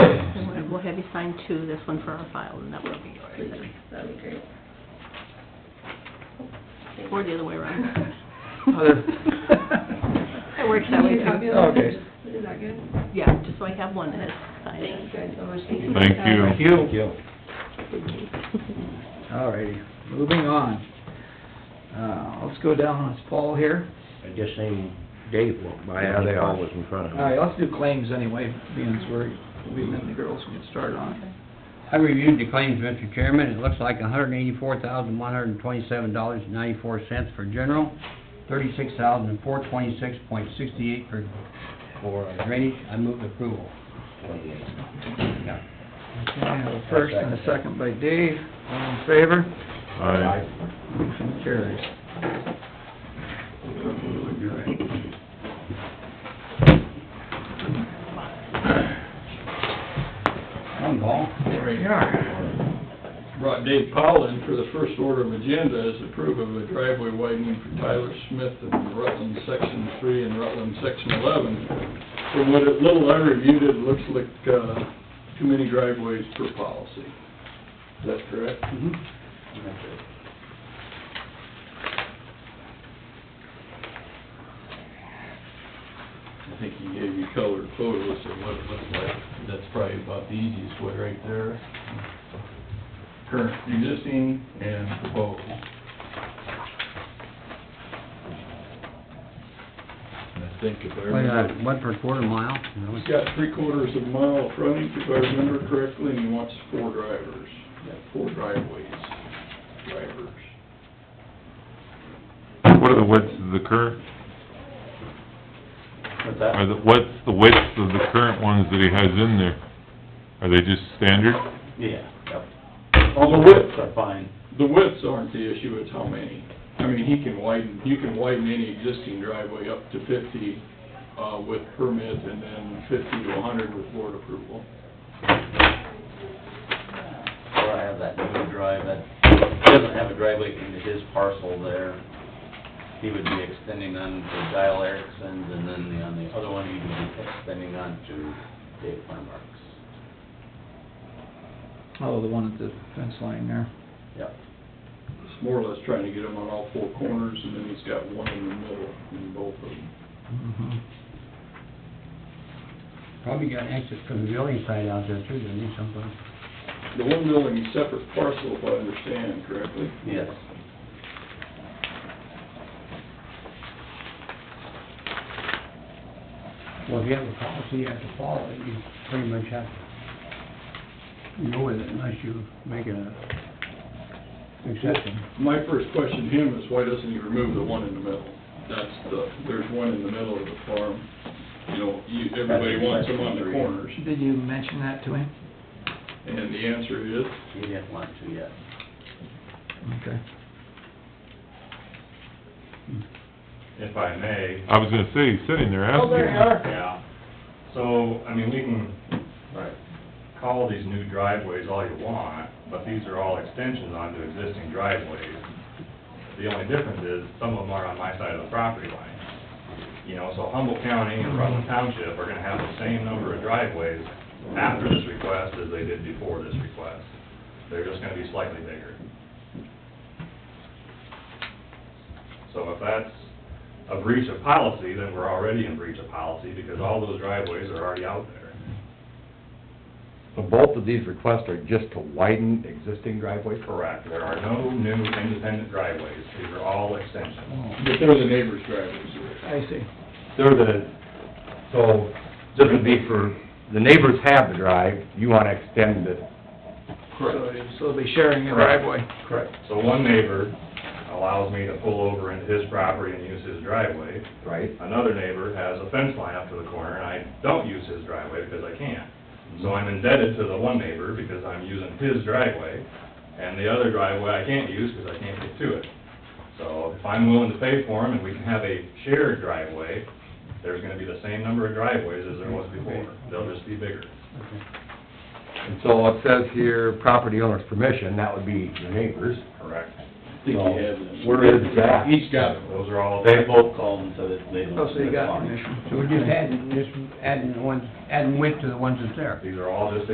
And we'll- we'll have you sign two, this one for our file, and that will be yours. That'd be great. Or the other way around. It It works that way, too. Okay. Is that good? Yeah, just so I have one that's Thank you signed. guys so much. Thank you. Thank you. Thank you. All righty, moving on. Uh, let's go down, it's Paul here. I just seen Dave walk by, Yeah, and they the are. call was in front of him. All right, let's do claims anyway, being as we're, we and the girls can get started on it. I reviewed the claims, Mr. Chairman. It looks like hundred eighty-four thousand, one hundred and twenty-seven dollars and ninety-four cents for general, thirty-six thousand, four twenty-six point sixty-eight for, for drainage. I move approval. Okay, I have a first and a second by Dave, all in favor? Aye. Motion carries. One call. There we are. brought Dave Powell in for the first order of agenda is approve of a driveway widening for Tyler Smith in Rutland Section Three and Rutland Section Eleven. From what it- little I reviewed, it looks like, uh, too many driveways per policy. Is that correct? Okay. I think he gave you colored photos of what it looks like. That's probably about the easiest way right there current existing and proposed. And I think if I Wait, remember, uh, One per quarter mile. you know. he's got three quarters of a mile of frontage, if I remember correctly, and he wants four drivers, yeah, four driveways, drivers. What are the widths of the current, What's that? are the, what's the width of the current ones that he has in there? Are they just standard? Yeah, yep. All the whips are fine. The widths aren't the issue, it's how many. I mean, he can widen, you can widen any existing driveway up to fifty, uh, with permit, and then fifty to hundred with board approval. Well, I have that new drive, that, he doesn't have a driveway into his parcel there. He would be extending on to Dial Erickson's, and then the- on the other one, he would be extending on to Dave Farmark's. Oh, the one at the fence line there. Yep. It's more or less trying to get him on all four corners, and then he's got one in the middle in both of them. Mhm. Probably got exit from the building site out there too, didn't he, someplace? The one building is separate parcel, if I understand correctly. Yes. Well, if you have a policy you have to follow, it, you pretty much have to go with it unless you make it a exception. My first question to him is, why doesn't he remove the one in the middle? That's the, there's one in the middle of the farm, you know, you, everybody wants them on the corners. Did you mention that to him? And the answer is, He didn't want to yet. Okay. if I may. I was gonna say, he's sitting there asking. Yeah. So, I mean, we can Right. call these new driveways all you want, but these are all extensions onto existing driveways. The only difference is, some of them are on my side of the property line. You know, so Humboldt County and Rutland Township are gonna have the same number of driveways after this request as they did before this request. They're just gonna be slightly bigger. So if that's a breach of policy, then we're already in breach of policy, because all those driveways are already out there. So both of these requests are just to widen existing driveways? Correct, there are no new independent driveways, these are all extensions. but they're the neighbor's drivers. I see. They're the, so, this would be for, the neighbors have the drive, you wanna extend it. So- So they'll be sharing a Correct. driveway. Correct. So one neighbor allows me to pull over into his property and use his driveway. Right? Another neighbor has a fence line up to the corner, and I don't use his driveway because I can't. So I'm indebted to the one neighbor because I'm using his driveway, and the other driveway I can't use because I can't get to it. So if I'm willing to pay for them and we can have a shared driveway, there's gonna be the same number of driveways as there was before. They'll just be bigger. And so it says here, property owner's permission, that would be your neighbors. Correct. I think he So, had them. Where is that? He's got them. Those are all. They both called and said that they don't. Oh, so you got want it. permission. So we're just adding, just adding the ones, adding width to the ones that's there. These are all just